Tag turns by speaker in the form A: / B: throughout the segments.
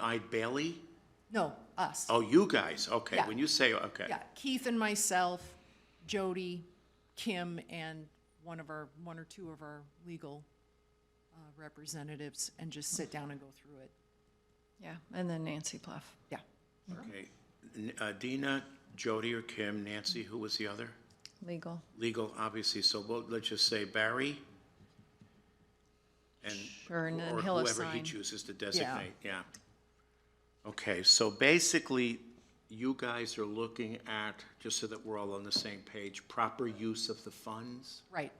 A: I Bailey?
B: No, us.
A: Oh, you guys, okay,
B: Yeah.
A: when you say, okay.
B: Yeah, Keith and myself, Jody, Kim, and one of our, one or two of our legal uh, representatives, and just sit down and go through it.
C: Yeah, and then Nancy Pluff.
B: Yeah.
A: Okay. N- uh, Dina, Jody, or Kim, Nancy, who was the other?
C: Legal.
A: Legal, obviously, so we'll, let's just say Barry. And,
C: Sure, and then
A: or
C: he'll
A: whoever he
C: assign.
A: chooses to designate, yeah. Okay, so basically, you guys are looking at, just so that we're all on the same page, proper use of the funds?
B: Right.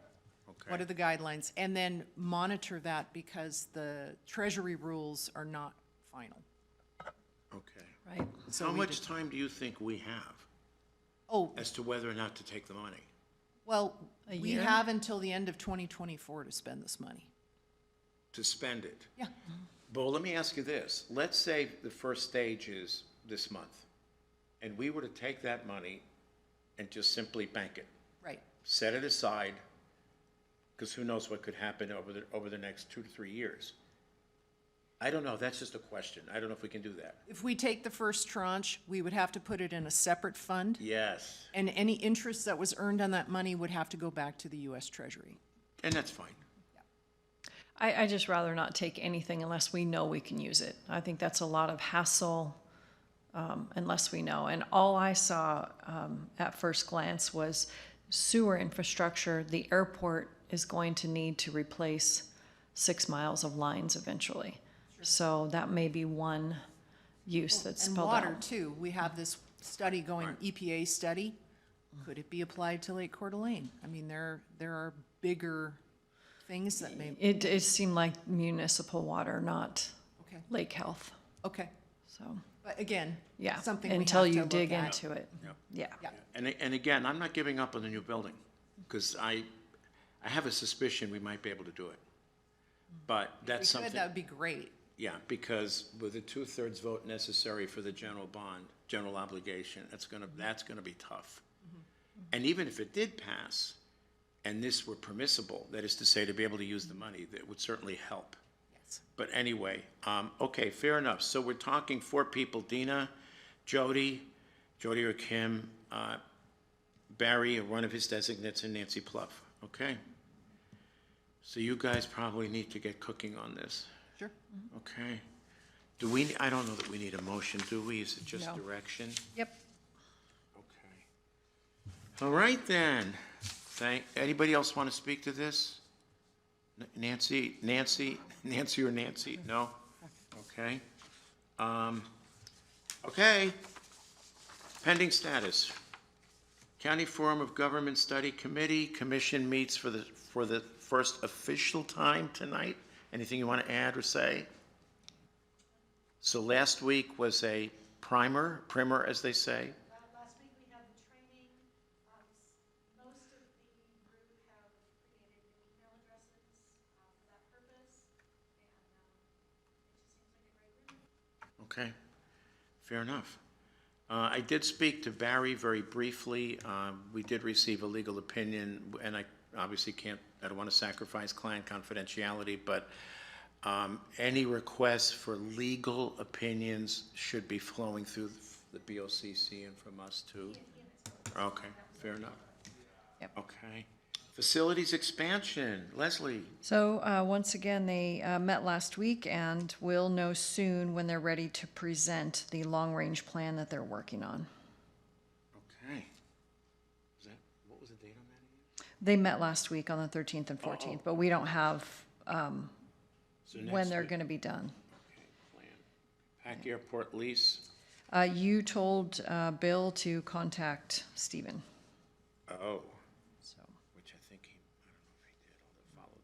A: Okay.
B: What are the guidelines? And then monitor that because the treasury rules are not final.
A: Okay.
C: Right.
B: So
A: How
B: we
A: much
B: just-
A: time do you think we have
B: Oh,
A: as to whether or not to take the money?
B: well,
C: A
B: we
C: year?
B: have until the end of 2024 to spend this money.
A: to spend it.
B: Yeah,
C: Mm-hmm.
A: But let me ask you this, let's say the first stage is this month, and we were to take that money and just simply bank it,
B: right.
A: set it aside, because who knows what could happen over the, over the next two to three years. I don't know, that's just a question, I don't know if we can do that.
B: If we take the first tranche, we would have to put it in a separate fund.
A: Yes,
B: And any interest that was earned on that money would have to go back to the US Treasury.
A: and that's fine.
C: I, I just rather not take anything unless we know we can use it. I think that's a lot of hassle um, unless we know. And all I saw um, at first glance was sewer infrastructure. The airport is going to need to replace six miles of lines eventually. So that may be one use that's
B: And
C: spelled
B: water
C: out.
B: too, we have this study going, EPA study, could it be applied to Lake Coeur d'Alene? I mean, there, there are bigger things that may,
C: It, it seemed like municipal water, not
B: okay,
C: lake health.
B: okay,
C: So,
B: but again,
C: yeah.
B: something we have
C: Until
B: to
C: you
B: look
C: dig
B: at.
C: into it. Yeah.
B: Yeah.
A: And, a- and again, I'm not giving up on the new building, because I, I have a suspicion we might be able to do it. But
B: If
A: that's
B: we
A: something.
B: could, that would be great,
A: Yeah, because with the two-thirds vote necessary for the general bond, general obligation, that's gonna, that's gonna be tough. And even if it did pass, and this were permissible, that is to say, to be able to use the money, that would certainly help.
B: yes.
A: But anyway, um, okay, fair enough. So we're talking four people, Dina, Jody, Jody or Kim, uh, Barry, or one of his designates, and Nancy Pluff, okay? So you guys probably need to get cooking on this.
B: Sure.
A: Okay. Do we, I don't know that we need a motion, do we? Is it just
C: No.
A: direction?
C: Yep.
A: Okay. All right then. Thank, anybody else want to speak to this? N- Nancy, Nancy, Nancy or Nancy? No? Okay. Um, okay. Pending status. County Forum of Government Study Committee, commission meets for the, for the first official time tonight. Anything you want to add or say? So last week was a primer, primer as they say,
D: Uh, Last week, we had the training. Um, s- Most of the group have created email addresses uh, for that purpose. And um, it just seems like a great group.
A: Okay, fair enough. Uh, I did speak to Barry very briefly. Um, We did receive a legal opinion, and I obviously can't, I don't want to sacrifice client confidentiality, but um, any requests for legal opinions should be flowing through the BOCC and from us too. Okay, fair enough.
C: Yep.
A: Okay. Facilities expansion, Leslie.
C: So, uh, once again, they, uh, met last week and will know soon when they're ready to present the long-range plan that they're working on.
A: Okay. Was that, what was the date on that? again?
C: They met last week on the thirteenth and fourteenth, but we don't have, um,
A: So
C: when
A: next
C: they're
A: week.
C: gonna be done.
A: Okay, plan. Pack Airport lease,
C: Uh, you told, uh, Bill to contact Stephen,
A: oh,
C: so.
A: which I think he, I don't know if he did, I'll follow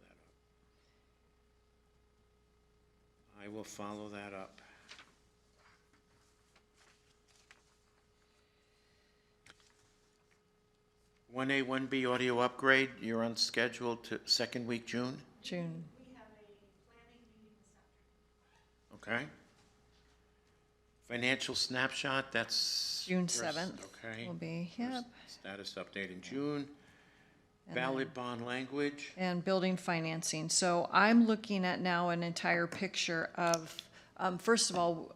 A: that up. I will follow that up. One A, one B audio upgrade, you're on schedule to second week June,
C: June,
A: okay? Financial snapshot, that's.
C: June
A: first,
C: seventh
A: Okay.
C: will be, yep.
A: Status update in June. Valid bond language.
C: and building financing. So I'm looking at now an entire picture of, um, first of all,